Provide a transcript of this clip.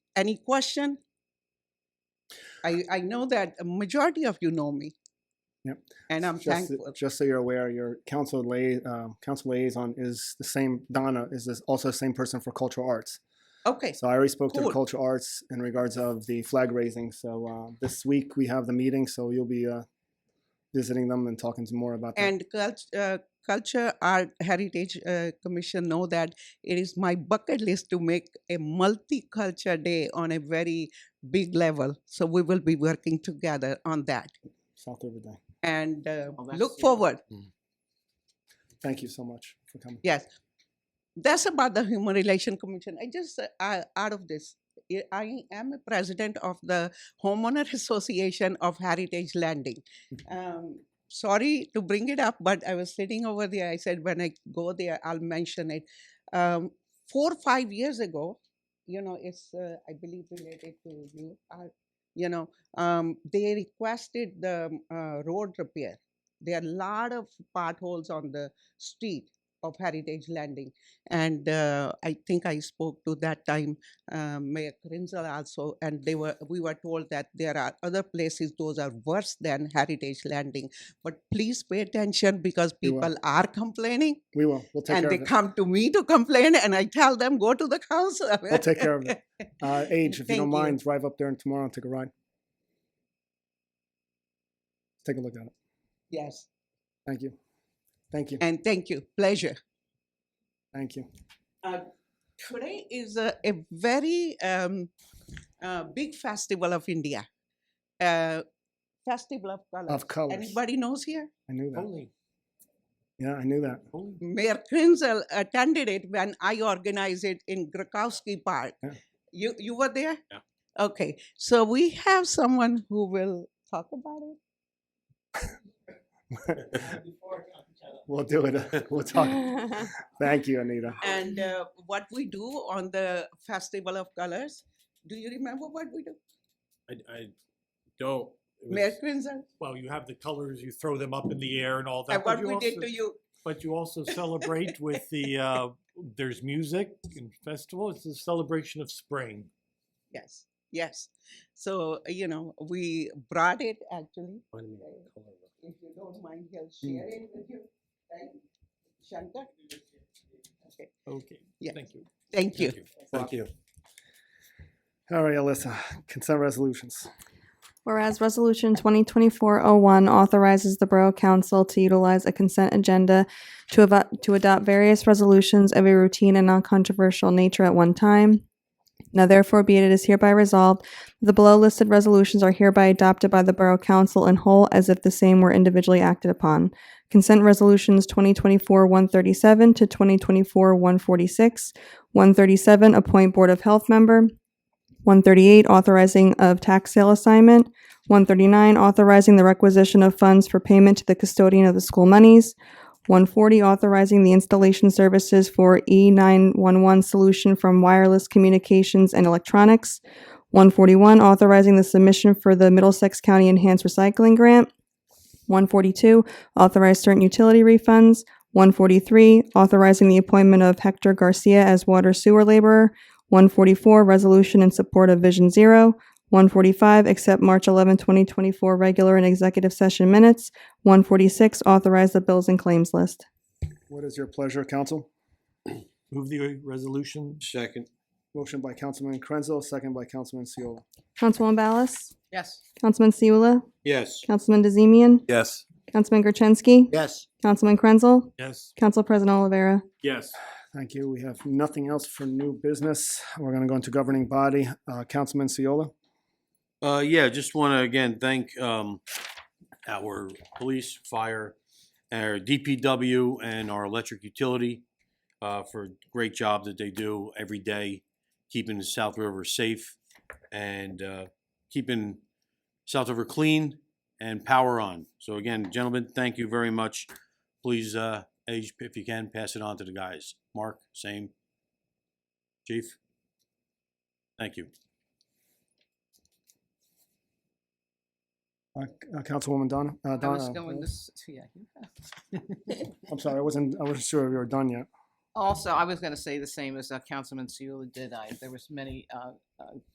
Any question? I, I know that a majority of you know me. Yep. And I'm just, thankful. Just so you're aware, your council, lay, uh, council liaison is the same, Donna is this also the same person for cultural arts. Okay, So I already spoke to the Cool. cultural arts in regards of the flag raising. So uh, this week we have the meeting, so you'll be uh, visiting them and talking some more about that. and cult, uh, culture art heritage uh, commission know that it is my bucket list to make a multicultural day on a very big level so we will be working together on that South River Day. and uh, Oh, look that's- yeah. forward Thank you so much for coming. yes that's about the human relation commission i just uh, I- out of this I- I am a president of the Homeowner Association of Heritage Landing. Um, sorry to bring it up, but I was sitting over there. I said, when I go there, I'll mention it. Um, four or five years ago, you know, it's, uh, I believe, related to you, uh, you know, um, they requested the um, uh, road repair. There are a lot of potholes on the street of Heritage Landing. And uh, I think I spoke to that time uh, Mayor Krinzel also, and they were we were told that there are other places those are worse than Heritage Landing. But please pay attention because We will. people are complaining, We will. We'll take and care they of it. come to me to complain, and I tell them go to the council. We'll take care of it. Uh, Age, if you Thank don't you. mind, drive up there and tomorrow and take a ride. Take a look at it. Yes, Thank you. Thank you. and thank you, pleasure. Thank you. Uh, today is a, a very um, uh, big festival of India. Uh, festival of colors. Of colors. Anybody knows here? I knew Oh. that. Holy, Yeah, I knew that. holy. Mayor Krinzel attended it when I organized it in Grakowski Park. Yeah. You, you were there? Yeah. Okay, so we have someone who will talk about it. We'll do it. We'll talk. Thank you, Anita. And Mm-hmm. uh, what we do on the Festival of Colors, do you remember what we do? I, I don't. It Mayor was- Krinzel, Well, you have the colors, you throw them up in the air and all that. and but uh, what you we did also- to you? But you also celebrate with the, uh, there's music and festival. It's a celebration of spring. Yes, yes. So, uh, you know, we brought it actually, if you don't mind, he'll Hmm. share it with you. Thank Shankar? Okay, Okay, Yeah. thank you. thank you. Thank you. All right, Alyssa, consent resolutions. Whereas Resolution 2024-01 authorizes the Borough Council to utilize a consent agenda to avo- to adopt various resolutions of a routine and non-controversial nature at one time. Now therefore be it, it is hereby resolved, that the below listed resolutions are hereby adopted by the Borough Council in whole as if the same were individually acted upon. Consent Resolutions 2024-137 to 2024-146, 137, appoint Board of Health member, 138, authorizing of tax sale assignment. 139, authorizing the requisition of funds for payment to the custodian of the school monies. 140, authorizing the installation services for E E911 solution from wireless communications and electronics. 141, authorizing the submission for the Middlesex County Enhanced Recycling Grant. 142, authorize certain utility refunds. 143, authorizing the appointment of Hector Garcia as water sewer laborer. 144, resolution in support of Vision Zero. 145, accept March 11, 2024 regular and executive session minutes. 146, authorize the bills and claims list. What is your pleasure, council? Move the resolution. Second, Motion by Councilman Krenzel, second by Councilman Seola. Councilwoman Ballas? Yes. Councilman Siula? yes. Councilman DeZemian? Yes. Councilman Gertensky? Yes. Councilman Krenzel? Yes. Council President Olivera? Yes. Thank you. We have nothing else for new business. We're going to go into governing body. Uh, Councilman Seola? Uh, yeah, just want to again thank um, our police, fire, our DPW, and our electric utility uh, for great job that they do every day, keeping the South River safe and uh, keeping South River clean and power on. So again, gentlemen, thank you very much. Please, uh, Age, if you can, pass it on to the guys. Mark, same. Chief, thank you. Uh, uh, Councilwoman Donna? uh, I was Donna, going uh, to, s- yeah. you have. I'm sorry, I wasn't, I wasn't sure if you were done yet. Also, I was going to say the same as uh, Councilman Seula did. I, there was many uh, uh,